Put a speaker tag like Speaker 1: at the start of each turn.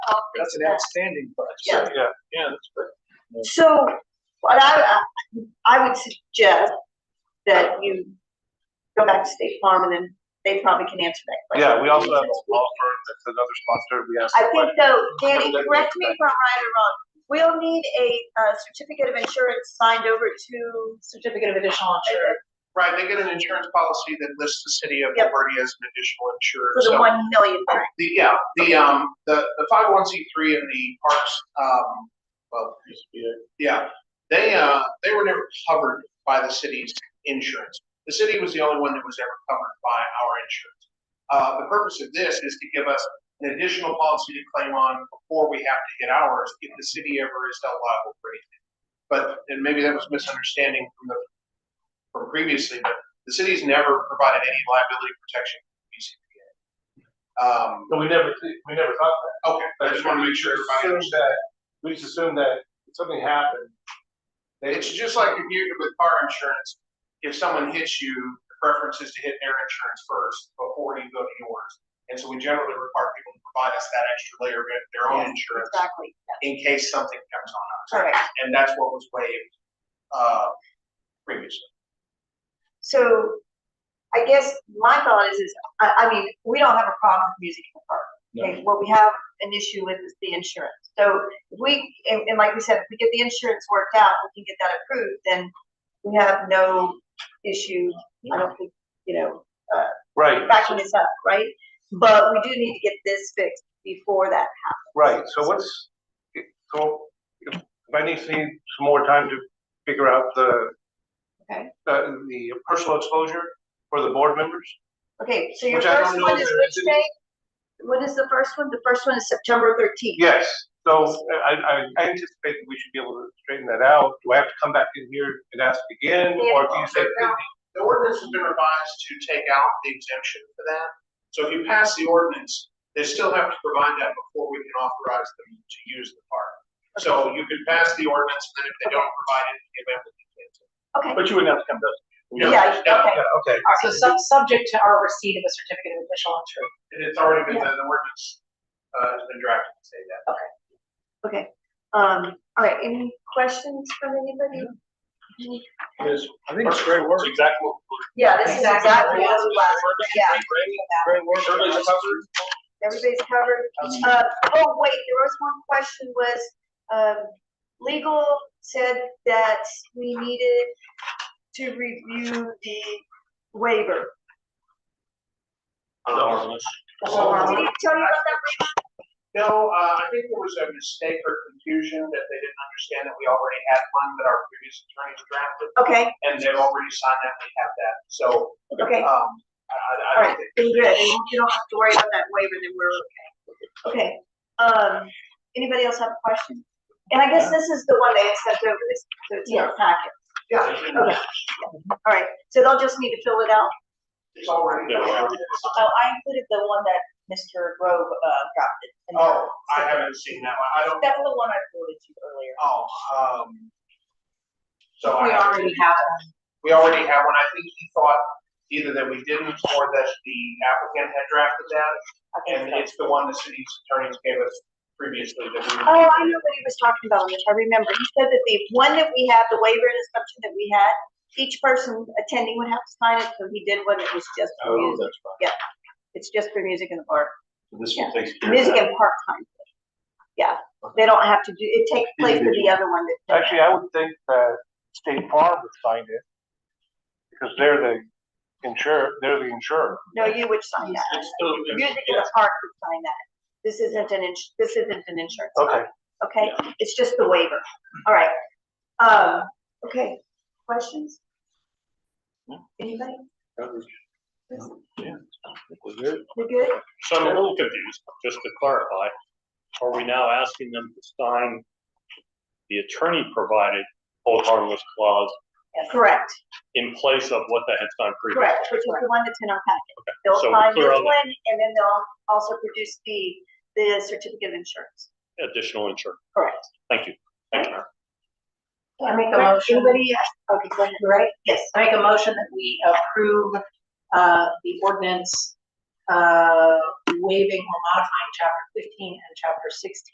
Speaker 1: all
Speaker 2: That's
Speaker 1: things
Speaker 2: an outstanding
Speaker 1: Yeah.
Speaker 2: price.
Speaker 3: Yeah, yeah, that's great.
Speaker 1: that. So what I, I would suggest that you go back to State Farm and then they probably can answer that question.
Speaker 3: Yeah, we also have a law firm that's another sponsor. We asked.
Speaker 1: I think though, Danny, correct me if I'm right or wrong, we'll need a, uh certificate of insurance signed over to. Certificate of additional insurance.
Speaker 2: Right, they get an insurance policy that lists the city of
Speaker 1: Yep.
Speaker 2: Liberty as an additional insurer.
Speaker 1: For the
Speaker 2: so-
Speaker 1: one million, right?
Speaker 2: The, yeah, the, um, the, the five oh one C three and the parks, um, well, yeah, they, uh, they were never covered by the city's insurance. The city was the only one that was ever covered by our insurance. Uh, the purpose of this is to give us an additional policy to claim on before we have to hit ours if the city ever is held liable for anything. But, and maybe that was misunderstanding from the, from previously, but the city's never provided any liability protection to BCPA. Um,
Speaker 3: No, we never, we never thought that.
Speaker 2: Okay, I just want to make sure everybody
Speaker 3: Assumed
Speaker 2: understands.
Speaker 3: that, we just assumed that if something happened. They,
Speaker 2: It's just like if you, with car insurance, if someone hits you, the preference is to hit their insurance first before you go to yours. And so we generally require people to provide us that extra layer of their own insurance
Speaker 1: Exactly,
Speaker 2: in case something comes on us.
Speaker 1: correct.
Speaker 2: And that's what was waived, uh, previously.
Speaker 1: So I guess my thought is, is, I, I mean, we don't have a problem with music in the park. Okay, what we have an issue with is the insurance. So if we, and, and like we said, if we get the insurance worked out, we can get that approved, then we have no issue. I don't think, you know,
Speaker 3: right,
Speaker 1: backing this up, right? But we do need to get this fixed before that.
Speaker 3: right, so what's, so if if I need to need some more time to figure out the.
Speaker 1: Okay.
Speaker 3: The, the personal exposure for the board members,
Speaker 1: Okay, so your
Speaker 3: Which I
Speaker 1: first
Speaker 3: don't know
Speaker 1: one is
Speaker 3: if there
Speaker 1: which
Speaker 3: is any-
Speaker 1: day? When is the first one? The first one is September thirteenth.
Speaker 3: yes, so I, I I anticipate that we should be able to straighten that out, do I have to come back in here and ask again, or do you say?
Speaker 2: Yeah. The ordinance has been revised to take out the exemption for that. So if you pass the ordinance, they still have to provide that before we can authorize them to use the park. So you can pass the ordinance, and then if they don't provide it, you give them the exemption.
Speaker 1: Okay,
Speaker 3: But you wouldn't have to come to us.
Speaker 2: No,
Speaker 1: yeah,
Speaker 2: no,
Speaker 1: okay.
Speaker 3: Yeah, okay,
Speaker 4: So sub- subject to our receipt of a certificate of official insurance.
Speaker 2: and It's already been, done. the ordinance, uh, has been drafted to say that.
Speaker 1: Okay, um, all right, any questions from anybody?
Speaker 2: I think it's great work.
Speaker 3: Exactly.
Speaker 1: Yeah, this is exactly what was last, yeah,
Speaker 2: Great work.
Speaker 3: Everybody's covered.
Speaker 1: everybody's covered. Uh, oh, wait, there was one question was, um, legal said that we needed to review the waiver. Did he tell you about that?
Speaker 2: No, uh, I think there was a mistake or confusion that they didn't understand that we already had one that our previous attorneys drafted,
Speaker 1: Okay,
Speaker 2: and they've already signed that, we have that. So
Speaker 1: okay,
Speaker 2: Um, I,
Speaker 1: all
Speaker 2: I, I
Speaker 1: right,
Speaker 2: don't think,
Speaker 1: then good, and you don't have to worry about that waiver, then we're okay. Okay, um, anybody else have a question? And I guess this is the one they had sent over this, so it's in our packet.
Speaker 2: yeah,
Speaker 1: Okay. All right, so they'll just need to fill it out.
Speaker 2: it's already.
Speaker 4: Oh, I included the one that Mr. Grove, uh, got. in there.
Speaker 2: Oh, I haven't seen that one, I don't,
Speaker 4: That's the one I forwarded to you earlier.
Speaker 2: oh, um. So
Speaker 4: We
Speaker 2: I,
Speaker 4: already have one.
Speaker 2: we already have one, I think he thought either that we didn't or that the applicant had drafted that,
Speaker 4: I think
Speaker 2: and
Speaker 4: so.
Speaker 2: it's the one the city's attorneys gave us previously that we.
Speaker 1: Oh, I know what he was talking about, Mitch, I remember, he said that the one that we had, the waiver and assumption that we had, each person attending would have to sign it, so he did one that was just
Speaker 5: Oh,
Speaker 1: for music,
Speaker 5: that's fine.
Speaker 1: it's just for music in the park,
Speaker 5: So This
Speaker 1: Yeah.
Speaker 5: one takes care of
Speaker 1: music
Speaker 5: that.
Speaker 1: and park time. Yeah, they don't have to do, it takes place for the other one that.
Speaker 3: Actually, I would think that State Farm would sign it. Because they're the insurer, they're the insurer.
Speaker 1: No, you would sign that, music in the park would sign that, this isn't an ins, this isn't an insurance.
Speaker 3: Okay,
Speaker 1: Okay, it's just the waiver. All right. Um, okay, questions? Anybody? We good?
Speaker 6: So I'm a little confused, just to clarify, are we now asking them to sign the attorney provided hold harmless clause
Speaker 1: Correct,
Speaker 6: in place of what they had signed previously?
Speaker 1: correct, which is the one that's in our packet. They'll
Speaker 6: so we're
Speaker 1: sign this
Speaker 6: clear on that.
Speaker 1: one and then they'll also produce the, the certificate of insurance.
Speaker 6: Additional insurance,
Speaker 1: Correct.
Speaker 6: thank you. Thank you.
Speaker 4: I make a motion.
Speaker 1: Anybody? Okay, go ahead, right?
Speaker 4: Yes, I make a motion that we approve, uh, the ordinance,
Speaker 1: uh, waiving or modifying chapter fifteen and chapter sixteen.